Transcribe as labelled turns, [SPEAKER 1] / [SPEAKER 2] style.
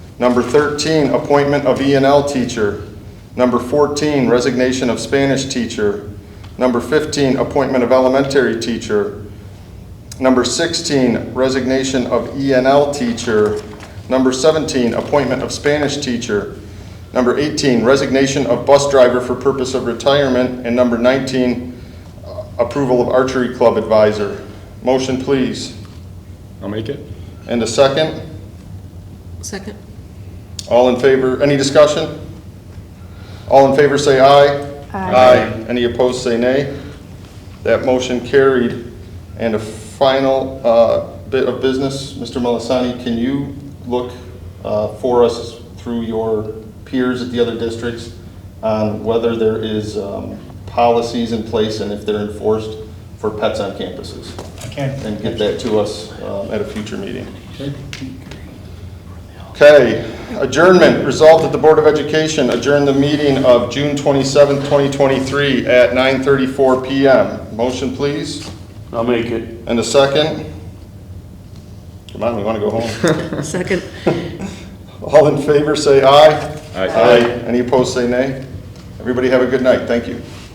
[SPEAKER 1] Number 13, appointment of E and L teacher. Number 14, resignation of Spanish teacher. Number 15, appointment of elementary teacher. Number 16, resignation of E and L teacher. Number 17, appointment of Spanish teacher. Number 18, resignation of bus driver for purpose of retirement. And number 19, uh, approval of archery club advisor. Motion, please.
[SPEAKER 2] I'll make it.
[SPEAKER 1] And a second?
[SPEAKER 3] Second.
[SPEAKER 1] All in favor, any discussion? All in favor say aye. Aye. Any opposed say nay. That motion carried. And a final uh, bit of business, Mr. Melisani, can you look uh, for us through your peers at the other districts on whether there is um, policies in place and if they're enforced for pets on campuses?
[SPEAKER 4] Can.
[SPEAKER 1] And get that to us um, at a future meeting. Okay, adjournment, resolved that the Board of Education adjourn the meeting of June 27, 2023 at 9:34 PM. Motion, please,
[SPEAKER 5] I'll make it.
[SPEAKER 1] and a second. Come on, we want to go home.
[SPEAKER 3] Second.
[SPEAKER 1] All in favor, say aye.
[SPEAKER 2] Aye.
[SPEAKER 1] Any opposed, say nay. Everybody have a good night, thank you.